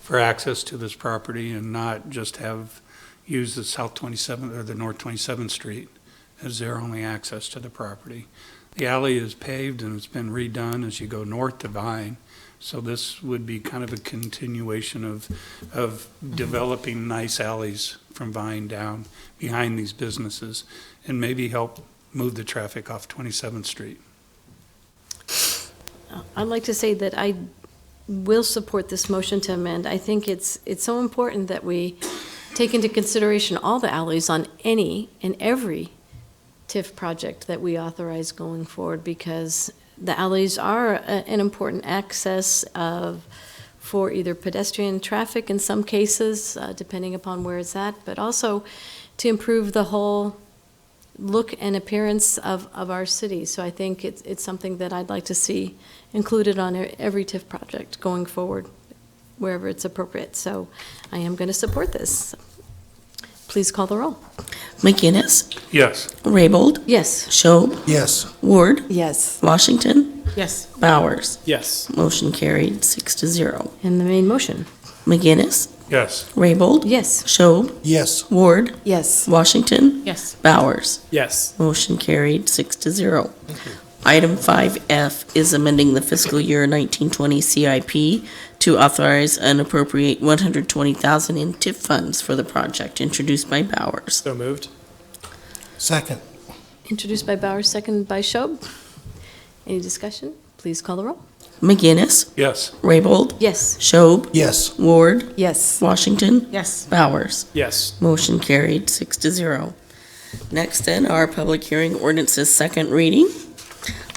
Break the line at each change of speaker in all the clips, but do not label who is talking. for access to this property and not just have, use the South 27th or the North 27th Street as their only access to the property. The alley is paved and it's been redone as you go north to Vine. So this would be kind of a continuation of, of developing nice alleys from Vine down behind these businesses and maybe help move the traffic off 27th Street.
I'd like to say that I will support this motion to amend. I think it's, it's so important that we take into consideration all the alleys on any and every TIF project that we authorize going forward, because the alleys are a- an important access of, for either pedestrian traffic in some cases, uh, depending upon where it's at, but also to improve the whole look and appearance of, of our city. So I think it's, it's something that I'd like to see included on e- every TIF project going forward, wherever it's appropriate. So I am going to support this. Please call the roll.
McGinnis,
Yes.
Raybold,
Yes.
Schob,
Yes.
Ward,
Yes.
Washington,
Yes.
Bowers.
Yes.
Motion carried, six to zero.
And the main motion.
McGinnis,
Yes.
Raybold,
Yes.
Schob,
Yes.
Ward,
Yes.
Washington,
Yes.
Bowers.
Yes.
Motion carried, six to zero. Item 5F is amending the fiscal year 1920 CIP to authorize and appropriate 120,000 in TIP funds for the project, introduced by Bowers.
So moved.
Second.
Introduced by Bauer, seconded by Schob. Any discussion? Please call the roll.
McGinnis,
Yes.
Raybold,
Yes.
Schob,
Yes.
Ward,
Yes.
Washington,
Yes.
Bowers.
Yes.
Motion carried, six to zero. Next then are public hearing ordinances second reading.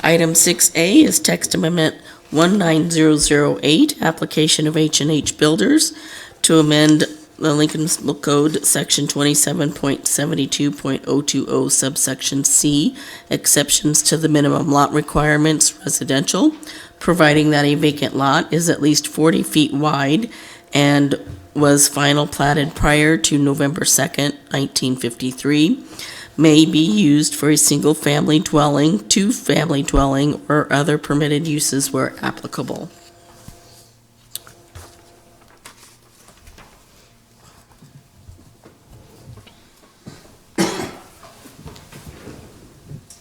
Item six A is text amendment one nine zero zero eight, application of H and H Builders to amend the Lincoln Municipal Code, section twenty-seven point seventy-two point oh two oh subsection C, exceptions to the minimum lot requirements residential, providing that a vacant lot is at least forty feet wide and was final platted prior to November 2nd, 1953, may be used for a single-family dwelling, two-family dwelling, or other permitted uses where applicable.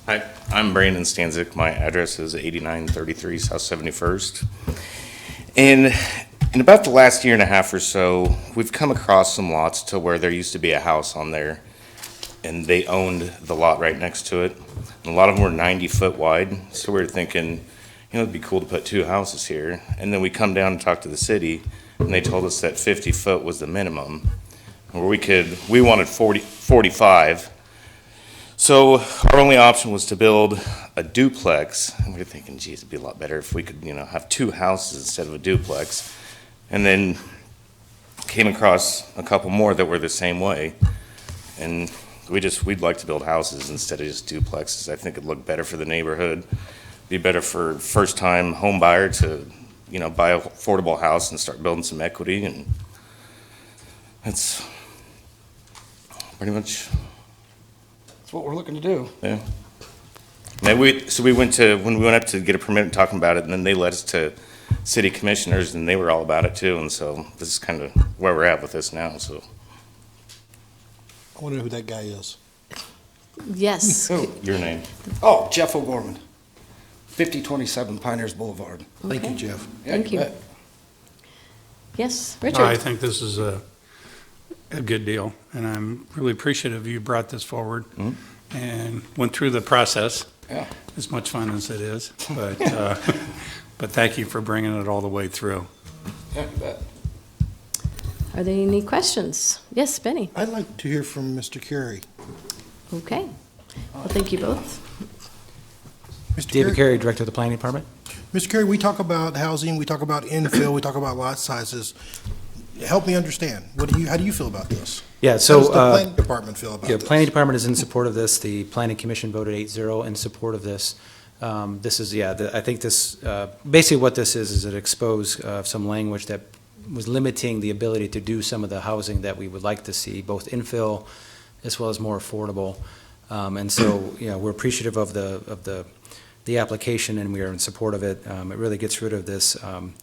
Hi, I'm Brandon Stanzik. My address is 8933 South 71st. And in about the last year and a half or so, we've come across some lots to where there used to be a house on there, and they owned the lot right next to it. And a lot of them were 90-foot wide, so we were thinking, you know, it'd be cool to put two houses here. And then we come down and talk to the city, and they told us that 50 foot was the minimum, where we could, we wanted 40, 45, so our only option was to build a duplex, and we were thinking, geez, it'd be a lot better if we could, you know, have two houses instead of a duplex. And then came across a couple more that were the same way, and we just, we'd like to build houses instead of just duplexes. I think it'd look better for the neighborhood, be better for first-time home buyer to, you know, buy a affordable house and start building some equity, and that's pretty much
That's what we're looking to do.
yeah. And we, so we went to, when we went up to get a permit and talking about it, and then they led us to city commissioners, and they were all about it too, and so this is kind of where we're at with this now, so.
I wonder who that guy is.
Yes.
Your name?
Oh, Jeff O'Gorman, 5027 Pinehurst Boulevard.
Thank you, Jeff.
Yeah,
Thank you.
bet.
Yes.
No, I
Richard.
think this is a, a good deal, and I'm really appreciative you brought this forward and went through the process.
Yeah.
As much fun as it is, but, uh, but thank you for bringing it all the way through.
Yeah, you bet.
Are there any questions? Yes, Benny.
I'd like to hear from Mr. Carey.
Okay. Well, thank you both.
Mr.
David Carey, Director of the Planning Department.
Mr. Carey, we talk about housing, we talk about infill, we talk about lot sizes. Help me understand. What do you, how do you feel about this?
Yeah,
How does
so,
the
uh,
planning department feel about
yeah,
this?
Planning Department is in support of this. The Planning Commission voted 8-0 in support of this. Um, This is, yeah, the- I think this, uh, basically what this is, is it exposed uh, some language that was limiting the ability to do some of the housing that we would like to see, both infill as well as more affordable. Um, And so, you know, we're appreciative of the, of the, the application, and we are in support of it. Um, It really gets rid of this um,